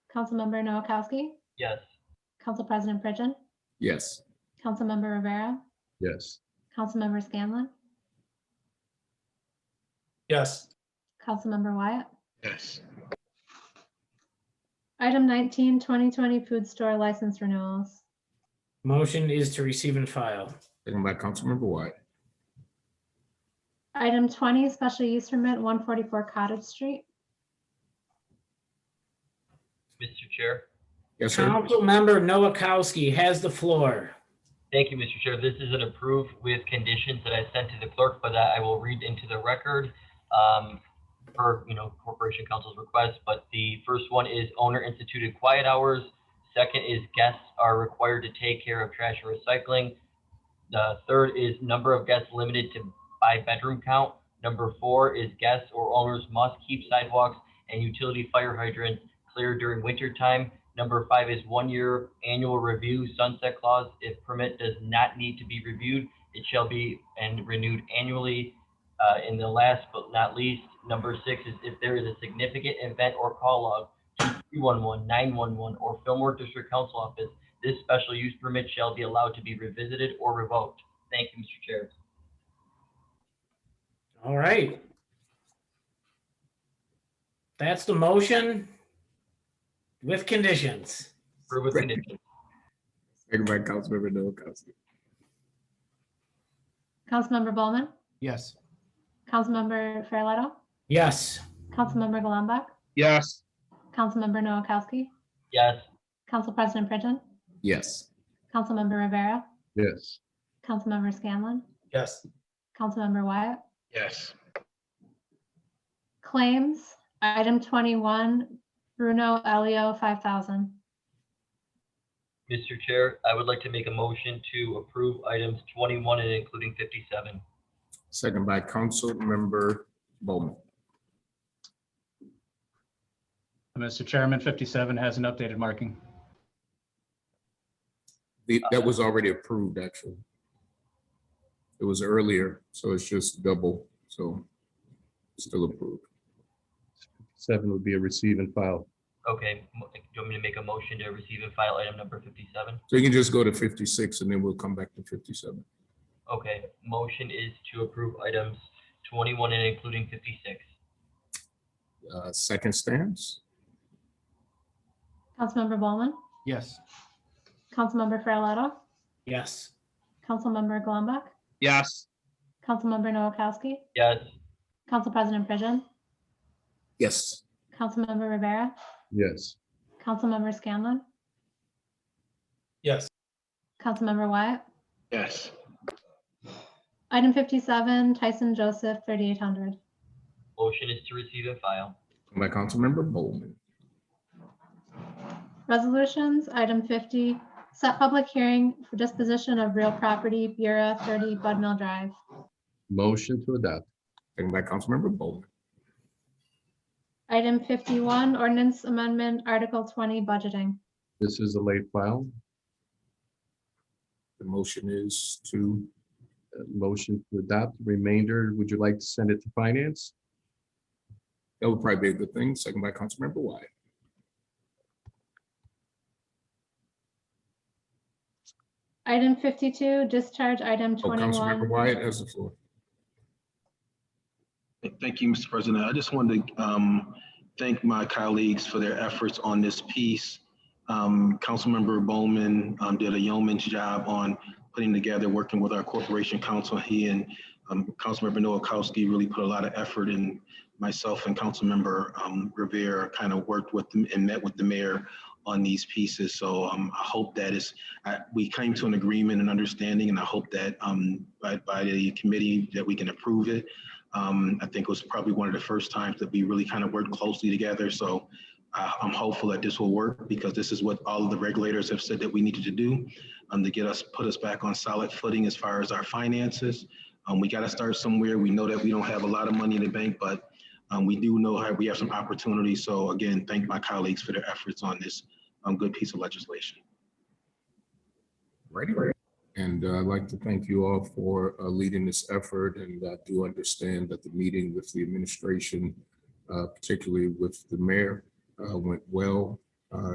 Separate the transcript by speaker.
Speaker 1: Councilmember Noakowski,
Speaker 2: Yes.
Speaker 1: Council President Pridgen,
Speaker 3: Yes.
Speaker 1: Councilmember Rivera,
Speaker 3: Yes.
Speaker 1: Councilmember Scanlon,
Speaker 4: Yes.
Speaker 1: Councilmember Wyatt.
Speaker 3: Yes.
Speaker 1: Item 19, 2020 food store license renewals.
Speaker 4: Motion is to receive and file.
Speaker 3: Second by Councilmember Wyatt.
Speaker 1: Item 20, special use permit 144 Cottage Street.
Speaker 2: Mr. Chair.
Speaker 3: Yes, sir.
Speaker 4: Councilmember Noakowski has the floor.
Speaker 2: Thank you, Mr. Chair. This is an approved with conditions that I sent to the clerk, but that I will read into the record um, per, you know, Corporation Council's request. But the first one is owner instituted quiet hours. Second is guests are required to take care of trash and recycling. The third is number of guests limited to by bedroom count. Number four is guests or owners must keep sidewalks and utility fire hydrants clear during winter time. Number five is one-year annual review sunset clause. If permit does not need to be reviewed, it shall be and renewed annually. Uh, and the last but not least, number six is if there is a significant event or call log, 311, 911, or Fillmore District Council Office, this special use permit shall be allowed to be revisited or revoked. Thank you, Mr. Chair.
Speaker 4: All right. That's the motion with conditions.
Speaker 2: Approve with
Speaker 3: Great.
Speaker 2: conditions.
Speaker 3: Second by Councilmember Noakowski.
Speaker 1: Councilmember Bowman,
Speaker 5: Yes.
Speaker 1: Councilmember Farrelletto,
Speaker 4: Yes.
Speaker 1: Councilmember Golumback,
Speaker 5: Yes.
Speaker 1: Councilmember Noakowski,
Speaker 2: Yes,
Speaker 1: Council President Pridgen,
Speaker 3: Yes.
Speaker 1: Councilmember Rivera,
Speaker 3: Yes.
Speaker 1: Councilmember Scanlon,
Speaker 4: Yes.
Speaker 1: Councilmember Wyatt.
Speaker 5: Yes.
Speaker 1: Claims, item 21, Bruno Elio, 5,000.
Speaker 2: Mr. Chair, I would like to make a motion to approve items 21 and including 57.
Speaker 3: Second by Councilmember Bowman.
Speaker 5: Mr. Uh, Chairman, 57 has an updated marking.
Speaker 3: The- That was already approved, actually. It was earlier, so it's just double, so still approved.
Speaker 6: Seven would be a receive and file.
Speaker 2: Okay, mo- do you want me to make a motion to receive and file item number 57?
Speaker 3: So you can just go to fifty-six and then we'll come back to fifty-seven.
Speaker 2: Okay, motion is to approve items 21 and including 56.
Speaker 3: Uh, Second stance?
Speaker 1: Councilmember Bowman,
Speaker 5: Yes.
Speaker 1: Councilmember Farrelletto,
Speaker 4: Yes.
Speaker 1: Councilmember Golumback,
Speaker 5: Yes.
Speaker 1: Councilmember Noakowski,
Speaker 2: Yes,
Speaker 1: Council President Pridgen,
Speaker 3: Yes.
Speaker 1: Councilmember Rivera,
Speaker 6: Yes.
Speaker 1: Councilmember Scanlon,
Speaker 4: Yes.
Speaker 1: Councilmember Wyatt.
Speaker 5: Yes.
Speaker 1: Item 57, Tyson Joseph, 3,800.
Speaker 2: motion is to receive and file.
Speaker 3: By Councilmember Bowman.
Speaker 1: Resolutions, item 50, set public hearing for disposition of real property, Bureau 30 Bud Mill Drive.
Speaker 6: Motion to adopt.
Speaker 3: Second by Councilmember Bowman.
Speaker 1: Item 51, ordinance amendment, Article 20, budgeting.
Speaker 6: This is a late file.
Speaker 3: The motion is to,
Speaker 6: Uh, Motion to adopt. Remainder, would you like to send it to finance?
Speaker 3: that would probably be a good thing. Second by Councilmember Wyatt. Oh,
Speaker 1: Item 52, discharge item
Speaker 3: Oh, Councilmember
Speaker 1: 21.
Speaker 3: Wyatt has the floor.
Speaker 7: Thank you, Mr. President. I just wanted to um, thank my colleagues for their efforts on this piece. Um, Councilmember Bowman um, did a yeoman's job on putting together, working with our corporation council. He and um, Councilmember Noakowski really put a lot of effort in. Myself and Councilmember um, Rivera kind of worked with them and met with the mayor on these pieces. So um, I hope that is, I- we came to an agreement and understanding, and I hope that um, by by the committee that we can approve it. Um, I think it was probably one of the first times that we really kind of worked closely together. So I, I'm hopeful that this will work because this is what all of the regulators have said that we needed to do um, to get us, put us back on solid footing as far as our finances. Um, we got to start somewhere. We know that we don't have a lot of money in the bank, but um, we do know how we have some opportunities. So again, thank my colleagues for their efforts on this um, good piece of legislation.
Speaker 3: Ready? And uh, I'd like to thank you all for uh, leading this effort, and I do understand that the meeting with the administration, uh, particularly with the mayor, uh, went well.